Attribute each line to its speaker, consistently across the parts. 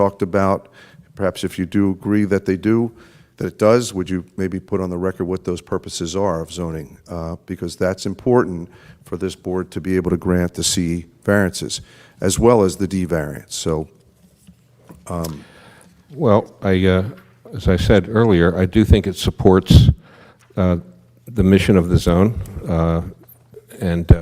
Speaker 1: talked about. Perhaps if you do agree that they do, that it does, would you maybe put on the record what those purposes are of zoning? Uh, Because that's important for this board to be able to grant the C variances, as well as the D variance. So
Speaker 2: Well, I, uh, as I said earlier, I do think it supports uh, the mission of the zone, uh, and uh,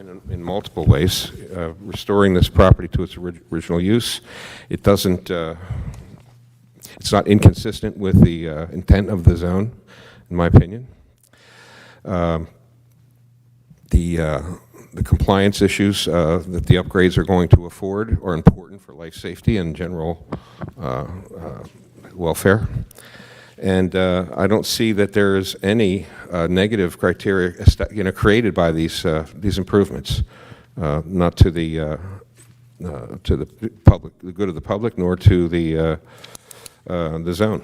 Speaker 2: in in multiple ways, uh, restoring this property to its orig- original use. It doesn't, uh, it's not inconsistent with the uh, intent of the zone, in my opinion. The, uh, the compliance issues uh, that the upgrades are going to afford are important for life safety and general uh, uh, welfare. And uh, I don't see that there is any uh, negative criteria, est- you know, created by these, uh, these improvements, uh, not to the, uh, uh, to the public, the good of the public, nor to the, uh, uh, the zone.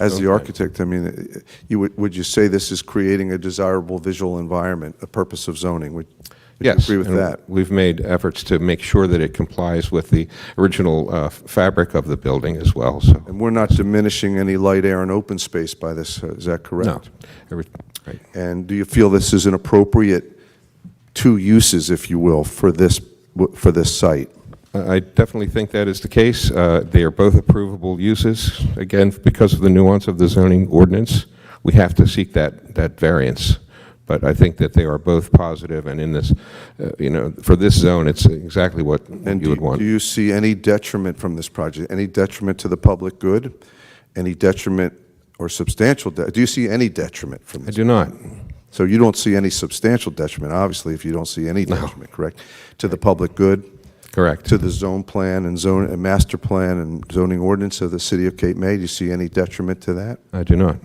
Speaker 1: as the
Speaker 2: Zone plan.
Speaker 1: architect, I mean, eh, you, would would you say this is creating a desirable visual environment, a purpose of zoning? Would would you
Speaker 2: Yes.
Speaker 1: agree with
Speaker 2: and
Speaker 1: that?
Speaker 2: We've made efforts to make sure that it complies with the original uh, f- fabric of the building as well, so.
Speaker 1: And we're not diminishing any light, air, and open space by this, uh, is that correct?
Speaker 2: No. Every- right.
Speaker 1: And do you feel this is an appropriate two uses, if you will, for this, for this site?
Speaker 2: I I definitely think that is the case. Uh, They are both approvable uses. Again, because of the nuance of the zoning ordinance, we have to seek that, that variance. But I think that they are both positive, and in this, uh, you know, for this zone, it's exactly what
Speaker 1: And
Speaker 2: you
Speaker 1: do
Speaker 2: would
Speaker 1: you-
Speaker 2: want.
Speaker 1: do you see any detriment from this project? Any detriment to the public good? Any detriment or substantial, de- do you see any detriment from
Speaker 2: I
Speaker 1: this?
Speaker 2: do not.
Speaker 1: So you don't see any substantial detriment, obviously, if you don't see any detriment, correct? To the public good,
Speaker 2: Correct.
Speaker 1: to the zone plan and zone, and master plan and zoning ordinance of the city of Cape May? Do you see any detriment to that?
Speaker 2: I do not.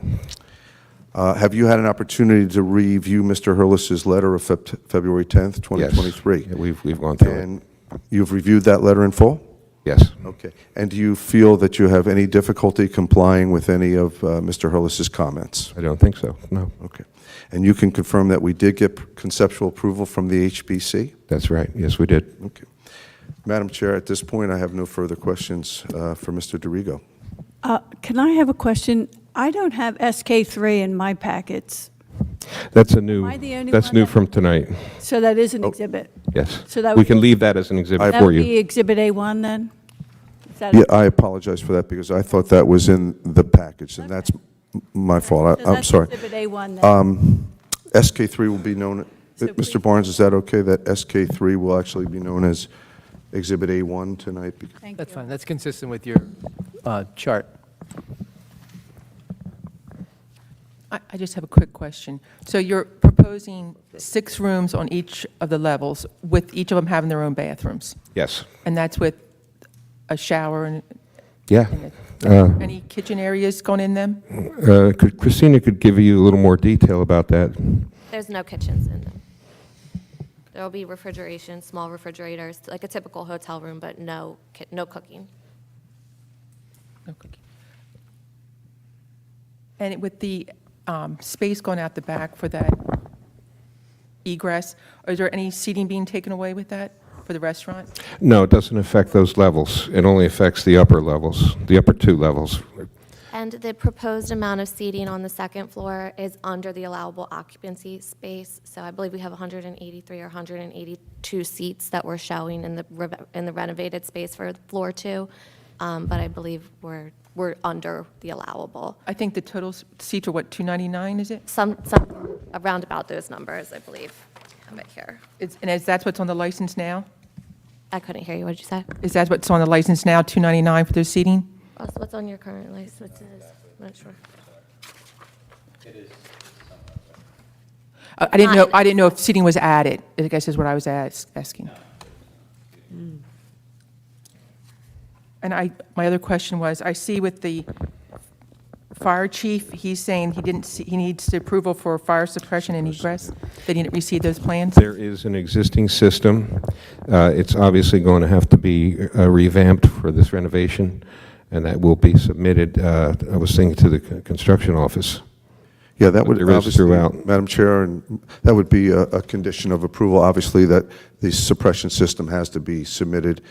Speaker 1: Uh, Have you had an opportunity to review Mr. Hurlis's letter of Feb- February 10th,
Speaker 2: Yes.
Speaker 1: 2023?
Speaker 2: Yeah, We've, we've gone through it.
Speaker 1: And you've reviewed that letter in full?
Speaker 2: Yes.
Speaker 1: Okay. And do you feel that you have any difficulty complying with any of uh, Mr. Hurlis's comments?
Speaker 2: I don't think so, no.
Speaker 1: Okay. And you can confirm that we did get conceptual approval from the HBC?
Speaker 2: That's right, yes, we did.
Speaker 1: Okay. Madam Chair, at this point, I have no further questions uh, for Mr. DiRigo.
Speaker 3: Uh, Can I have a question? I don't have SK3 in my packets,
Speaker 2: That's a new,
Speaker 3: Am I the only
Speaker 2: that's
Speaker 3: one
Speaker 2: new
Speaker 3: that-
Speaker 2: from tonight,
Speaker 3: so that is an
Speaker 1: Oh,
Speaker 3: exhibit.
Speaker 2: yes.
Speaker 3: So that
Speaker 2: We
Speaker 3: would
Speaker 2: can
Speaker 3: be-
Speaker 2: leave that as an exhibit
Speaker 3: That
Speaker 2: for
Speaker 3: would be
Speaker 2: you.
Speaker 3: Exhibit A1, then? Is that-
Speaker 1: Yeah, I apologize for that because I thought that was in the package, and that's m- my fault.
Speaker 3: so
Speaker 1: I- I'm
Speaker 3: that's
Speaker 1: sorry. Uh,
Speaker 3: Exhibit A1, then.
Speaker 1: Um, SK3 will be known,
Speaker 3: So
Speaker 1: Mr.
Speaker 3: please-
Speaker 1: Barnes, is that okay, that SK3 will actually be known as Exhibit A1 tonight? Bec-
Speaker 3: Thank
Speaker 4: That's
Speaker 3: you.
Speaker 4: fine, that's consistent with your uh, chart.
Speaker 5: I I just have a quick question. So you're proposing six rooms on each of the levels, with each of them having their own bathrooms?
Speaker 2: Yes,
Speaker 5: And that's with a shower and
Speaker 2: yeah.
Speaker 5: and
Speaker 2: Uh,
Speaker 5: a- any kitchen areas going in them?
Speaker 2: uh, could- Christina could give you a little more detail about that.
Speaker 6: There's no kitchens in them. There'll be refrigeration, small refrigerators, like a typical hotel room, but no, ki- no cooking.
Speaker 5: No cooking. And with the um, space going out the back for that egress, is there any seating being taken away with that for the restaurant?
Speaker 2: No, it doesn't affect those levels, it only affects the upper levels, the upper two levels.
Speaker 6: And the proposed amount of seating on the second floor is under the allowable occupancy space. So I believe we have 183 or 182 seats that we're showing in the, re- in the renovated space for floor two. Um, But I believe we're, we're under the allowable.
Speaker 5: I think the total s- seats are what, 299, is it?
Speaker 6: Some, some, around about those numbers, I believe. I have it here.
Speaker 5: It's- And is that what's on the license now?
Speaker 6: I couldn't hear you, what did you say?
Speaker 5: Is that what's on the license now, 299 for their seating?
Speaker 6: Ross, what's on your current license? What's this? I'm not sure.
Speaker 5: I I didn't know,
Speaker 6: Not-
Speaker 5: I didn't know if seating was added, I guess is what I was as- asking. And I, my other question was, I see with the fire chief, he's saying he didn't, see- he needs the approval for fire suppression and egress, they didn't receive those plans?
Speaker 2: There is an existing system, Uh, it's obviously going to have to be uh, revamped for this renovation, and that will be submitted, uh, I was thinking, to the c- construction office.
Speaker 1: Yeah, that would
Speaker 2: There is
Speaker 1: obviously,
Speaker 2: throughout.
Speaker 1: Madam Chair, and that would be a, a condition of approval, obviously, that the suppression system has to be submitted